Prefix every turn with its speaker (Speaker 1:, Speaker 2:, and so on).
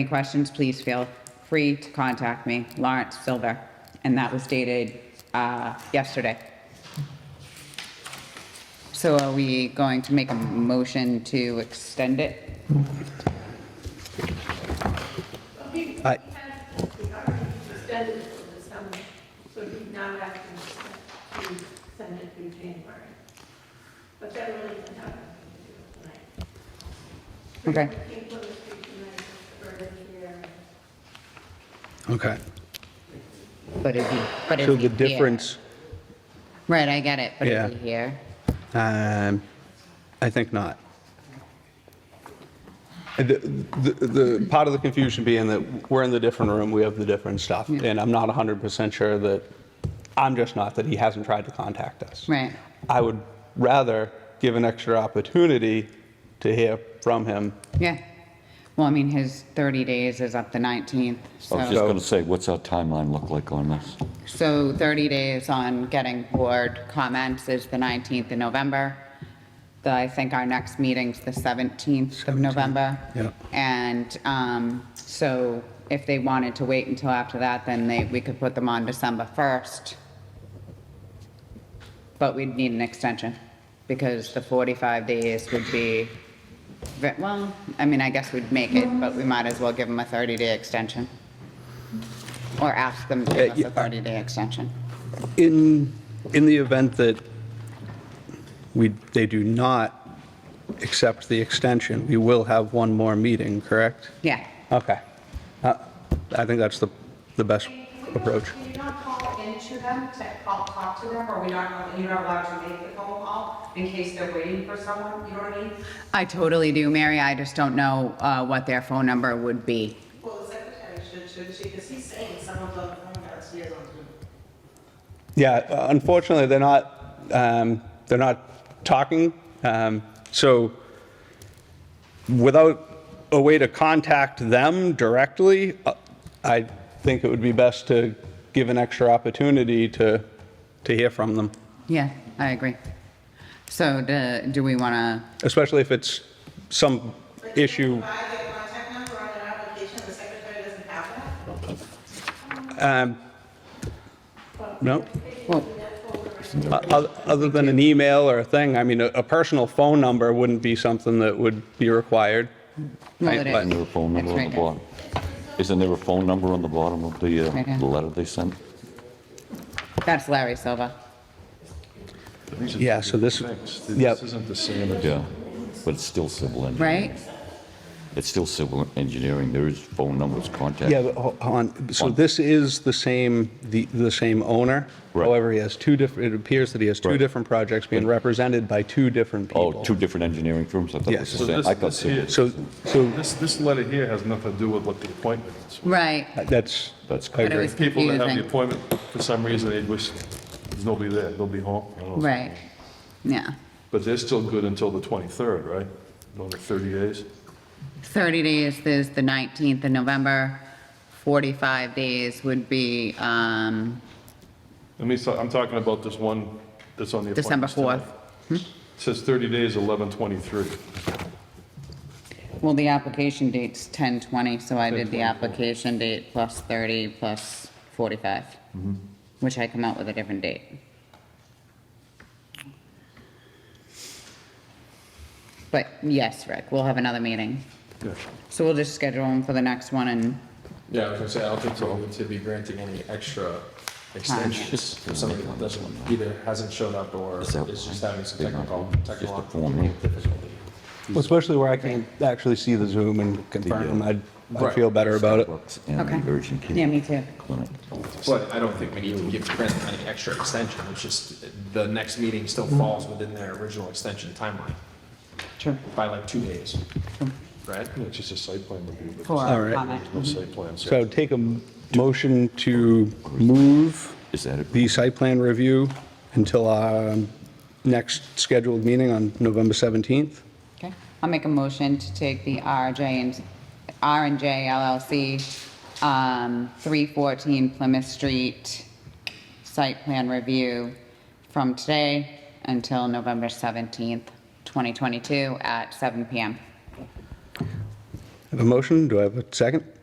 Speaker 1: Any questions, please feel free to contact me, Lawrence Silver. And that was dated uh, yesterday. So are we going to make a motion to extend it?
Speaker 2: I,
Speaker 3: We already extended it for the summer, so you now have to send it through January. But that really doesn't have anything to do with tonight.
Speaker 1: Okay,
Speaker 3: People are speaking tonight for this year.
Speaker 2: okay.
Speaker 1: but is he, but is
Speaker 2: So
Speaker 1: he
Speaker 2: the
Speaker 1: here?
Speaker 2: difference,
Speaker 1: Right, I get it, but
Speaker 2: Yeah.
Speaker 1: is he here?
Speaker 2: um, I think not. And The, the, the part of the confusion being that we're in the different room, we have the different stuff.
Speaker 1: Yeah.
Speaker 2: And I'm not 100% sure that, I'm just not, that he hasn't tried to contact us.
Speaker 1: Right.
Speaker 2: I would rather give an extra opportunity to hear from him.
Speaker 1: Yeah. Well, I mean, his 30 days is up the 19th,
Speaker 4: I was
Speaker 1: so,
Speaker 4: Oh, just gonna say, what's our timeline look like on this?
Speaker 1: so 30 days on getting board comments is the 19th of November. The, I think our next meeting's the 17th of
Speaker 2: 17th,
Speaker 1: November.
Speaker 2: yeah.
Speaker 1: And, um, so if they wanted to wait until after that, then they, we could put them on December 1st. But we'd need an extension because the 45 days would be, ve- well, I mean, I guess we'd make it, but we might as well give them a 30-day extension. Or ask them to give us
Speaker 2: yeah,
Speaker 1: a 30-day extension.
Speaker 2: In, in the event that we, they do not accept the extension, we will have one more meeting, correct?
Speaker 1: Yeah,
Speaker 2: Okay. Uh, I think that's the, the best approach.
Speaker 5: Can you not call into them to call, talk to them, or we not, you're not allowed to make the phone call in case they're waiting for someone, you know what I mean?
Speaker 1: I totally do, Mary. I just don't know uh, what their phone number would be.
Speaker 5: Well, the secretary should, should she, because he's saying some of the phone calls he has on Zoom.
Speaker 2: Yeah, uh, unfortunately, they're not, um, they're not talking. Um, So without a way to contact them directly, uh, I think it would be best to give an extra opportunity to, to hear from them,
Speaker 1: Yeah, I agree. So do, do we want to?
Speaker 2: especially if it's some issue.
Speaker 5: If I get contact number on an application, the secretary doesn't have that?
Speaker 2: um, No?
Speaker 1: Well,
Speaker 2: O- Other than an email or a thing, I mean, a a personal phone number wouldn't be something that would be required.
Speaker 1: well, it
Speaker 2: Right,
Speaker 1: is.
Speaker 4: Isn't there a phone
Speaker 1: It's
Speaker 4: number on
Speaker 1: right
Speaker 4: the
Speaker 1: there.
Speaker 4: bottom? Isn't there a phone number on the bottom of the,
Speaker 1: Right
Speaker 4: uh,
Speaker 1: here.
Speaker 4: the letter they sent?
Speaker 1: That's Larry Silva.
Speaker 6: These are
Speaker 2: Yeah, so this-
Speaker 6: fixed.
Speaker 2: yep.
Speaker 6: This isn't the same as.
Speaker 4: Yeah, but it's still civil engineering.
Speaker 1: right?
Speaker 4: It's still civil engineering, there is phone numbers, contact.
Speaker 2: Yeah, but ho- hold on, so
Speaker 4: One.
Speaker 2: this is the same, the, the same owner?
Speaker 4: Right.
Speaker 2: However, he has two different, it appears that he has two
Speaker 4: Right.
Speaker 2: different projects being represented by two different people.
Speaker 4: Oh, two different engineering firms, I thought it
Speaker 2: Yes.
Speaker 4: was
Speaker 6: So
Speaker 4: the same.
Speaker 6: this-
Speaker 4: I thought
Speaker 6: this
Speaker 4: civil.
Speaker 6: here-
Speaker 2: So, so
Speaker 6: This, this letter here has nothing to do with what the appointment is.
Speaker 1: Right.
Speaker 2: that's,
Speaker 4: That's
Speaker 2: I
Speaker 1: But it
Speaker 2: agree.
Speaker 1: was
Speaker 6: People that have the
Speaker 1: confusing.
Speaker 6: appointment, for some reason, they wish, there's nobody there, they'll be home. I don't know.
Speaker 1: Right. Yeah.
Speaker 6: But they're still good until the 23rd, right? Another 30 days?
Speaker 1: 30 days is the 19th of November. 45 days would be um,
Speaker 6: I mean, so I'm talking about this one that's on the
Speaker 1: December Hmm?
Speaker 6: appointments
Speaker 1: 4th.
Speaker 6: tonight. It Says 30 days, 11/23.
Speaker 1: Well, the application date's 10/20, so I did the application date plus 30 plus 45,
Speaker 2: Mm-hmm.
Speaker 1: which I come out with a different date. But yes, Rick, we'll have another meeting.
Speaker 6: Yeah.
Speaker 1: So we'll just schedule them for the next one and,
Speaker 7: Yeah, I was gonna say, I don't think we need to be granting any extra extensions for somebody that doesn't, either hasn't shown up or is
Speaker 4: Is that
Speaker 7: just having some
Speaker 4: big enough?
Speaker 7: technical,
Speaker 4: Just a
Speaker 7: technical
Speaker 4: form, yeah.
Speaker 7: difficulty.
Speaker 2: especially where I can actually see the Zoom and confirm, I'd, I'd feel better about it.
Speaker 4: Starbucks and
Speaker 1: Okay.
Speaker 4: the urgent care
Speaker 1: yeah, me too.
Speaker 4: Clinic.
Speaker 7: But I don't think we need to give Brent any extra extension, it's just, the next meeting still falls within their original extension timeline
Speaker 1: True.
Speaker 7: by like two days, right?
Speaker 6: Yeah, It's just a site plan review, but
Speaker 1: For
Speaker 2: All right.
Speaker 1: comment.
Speaker 6: there's no site plan. so-
Speaker 2: So take a m- motion to move
Speaker 4: Is that it?
Speaker 2: the site plan review until our next scheduled meeting on November 17th.
Speaker 1: Okay, I'll make a motion to take the RJ and, R and J LLC, um, 314 Plymouth Street site plan review from today until November 17th, 2022 at 7 PM.
Speaker 2: I have a motion, do I have a second?